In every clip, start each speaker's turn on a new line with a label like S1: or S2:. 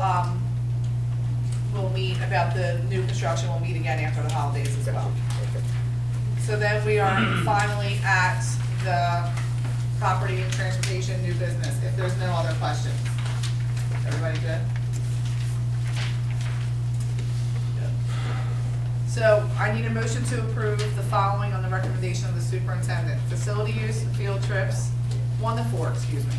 S1: um, about the new construction will meet again after the holidays as well.
S2: Okay.
S1: So then we are finally at the property and transportation new business, if there's no other questions. Everybody good? So I need a motion to approve the following on the recommendation of the superintendent. Facility use, field trips, one to four, excuse me.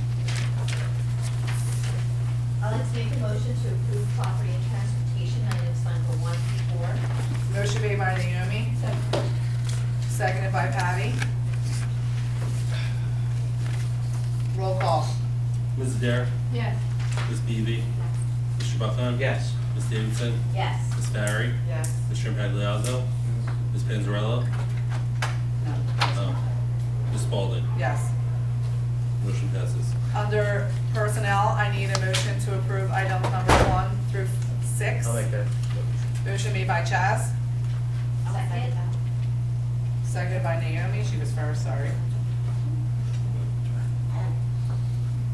S3: I'd like to make a motion to approve property and transportation items number one through four.
S1: Motion made by Naomi, seconded by Patty. Roll call.
S4: Ms. Adair,
S3: Yes.
S4: Ms. Beebe, Mr. Buckon.
S2: Yes.
S4: Ms. Davidson,
S3: Yes.
S4: Ms. Barry,
S1: Yes.
S4: Mr. Impagliazzo, Ms. Panzarella, um, Ms. Spalding.
S1: Yes.
S4: Motion passes.
S1: Under personnel, I need a motion to approve items number one through six.
S2: I'll make that.
S1: Motion made by Chaz,
S3: Second.
S1: seconded by Naomi, she was first, sorry.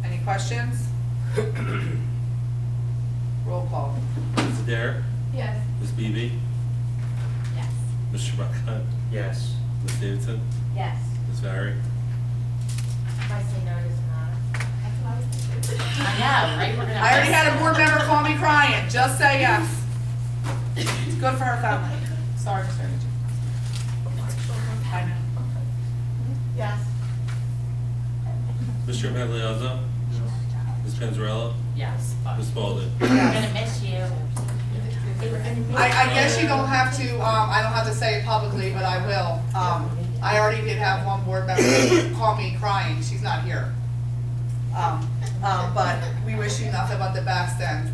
S1: Any questions? Roll call.
S4: Ms. Adair,
S3: Yes.
S4: Ms. Beebe,
S3: Yes.
S4: Mr. Buckon,
S2: Yes.
S4: Ms. Davidson,
S3: Yes.
S4: Ms. Barry,
S5: If I say no, it doesn't matter.
S3: That's what I was thinking.
S5: I know, right? We're gonna.
S1: I already had a board member call me crying, just say yes. It's good for her family. Sorry, Mr. Energy. I know.
S5: Yes.
S4: Mr. Impagliazzo, Ms. Panzarella,
S5: Yes. fuck.
S4: Ms. Spalding.
S5: We're gonna miss you. They were gonna miss
S1: I, I guess you don't have to, um, I don't have to say it publicly, but I will. Um, I already did have one board member call me crying, she's not here. Um, um, but we wish you nothing but the best and,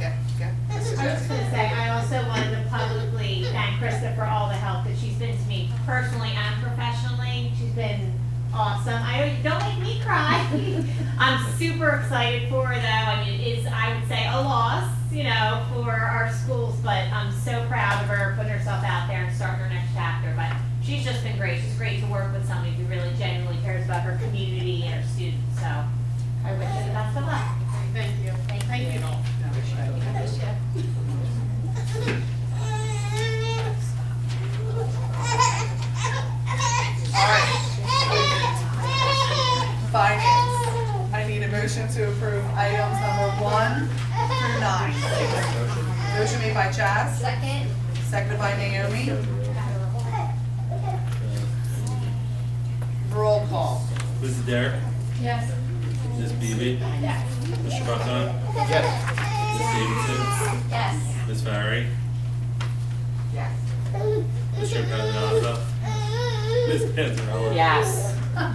S1: yeah, yeah. Mrs.
S6: I was just
S1: Jackson.
S6: gonna say, I also wanted to publicly thank Krista for all the help that she's been to me personally and professionally. She's been awesome. I don't, don't make me cry. I'm super excited for her though. I mean, it is, I would say, a loss, you know, for our schools, but I'm so proud of her putting herself out there and starting her next chapter. But she's just been great. She's great to work with somebody who really genuinely cares about her community and her students, so I wish her the best of luck.
S1: Thank you.
S3: Thank you.
S1: Finance, I need a motion to approve items number one through nine. Motion made by Chaz,
S3: Second.
S1: seconded by Naomi. Roll call.
S4: Ms. Adair,
S3: Yes.
S4: Ms. Beebe, Mr. Buckon,
S2: Yes.
S4: Ms. Davidson,
S3: Yes.
S4: Ms. Barry,
S1: Yes.
S4: Mr. Impagliazzo, Ms. Panzarella.
S5: Yes.
S4: Ms.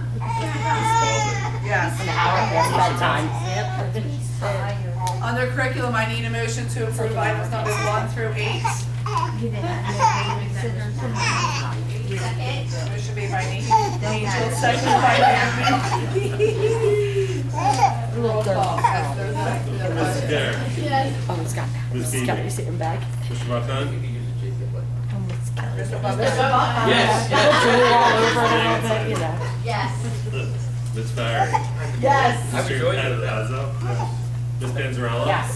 S1: Yes.
S5: An hour past bedtime.
S1: Under curriculum, I need a motion to approve items numbers one through eight.
S3: Second.
S1: Motion made by Na- Angel, seconded by Naomi. Roll call. Yes, there's a-
S4: Spalding. Ms.
S1: there's a-
S4: Adair,
S7: Almost got that.
S4: Ms. Beebe,
S7: Got to sit him back.
S4: Mr. Buckon,
S7: Almost got it.
S1: Mr. Buckman.
S2: Yes.
S4: Yes.
S7: But, you know.
S3: Yes.
S4: Ms. Barry,
S7: Yes.
S2: I've
S4: Mr.
S2: enjoyed it.
S4: Impagliazzo, Ms. Panzarella.
S5: Yes.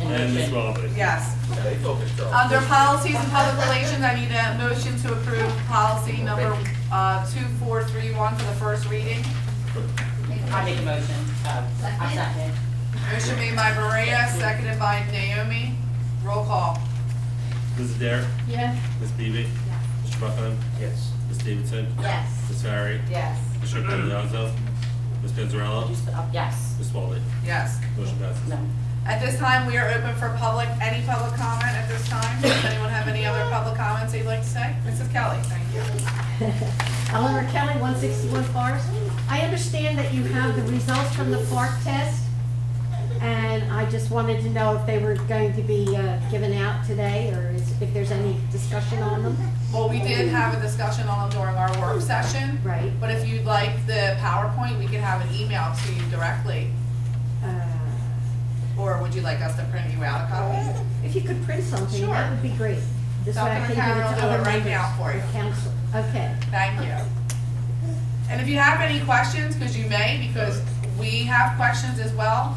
S4: And Ms. Spalding.
S1: Yes.
S2: They focused though.
S1: Under policies and public relations, I need a motion to approve policy number uh, 2431 for the first reading.
S5: I make a motion. Uh, I second.
S1: Motion made by Maria, seconded by Naomi. Roll call.
S4: Ms. Adair,
S3: Yes.
S4: Ms. Beebe, Mr. Buckon,
S2: Yes.
S4: Ms. Davidson,
S3: Yes.
S4: Ms. Barry,
S5: Yes. uh,
S4: Mr. Impagliazzo, Ms. Panzarella,
S5: Yes.
S4: Ms. Spalding.
S1: Yes.
S4: Motion passes.
S5: No.
S1: At this time, we are open for public, any public comment at this time. Does anyone have any other public comments they'd like to say? Mrs. Kelly, thank you.
S8: Eleanor Kelly, 161 Forest. I understand that you have the results from the FARC test, and I just wanted to know if they were going to be uh, given out today, or is- if there's any discussion on them.
S1: Well, we did have a discussion on it during our work session,
S8: Right.
S1: but if you'd like the PowerPoint, we can have an email to you directly.
S8: Uh,
S1: Or would you like us to print you out a copy?
S8: If you could print something,
S1: Sure.
S8: that would be great. This way I
S1: Dr.
S8: can give
S1: Carol,
S8: it
S1: do
S8: to
S1: it
S8: other
S1: right now for
S8: members
S1: you.
S8: of council. Okay.
S1: Thank you. And if you have any questions, because you may, because we have questions as well,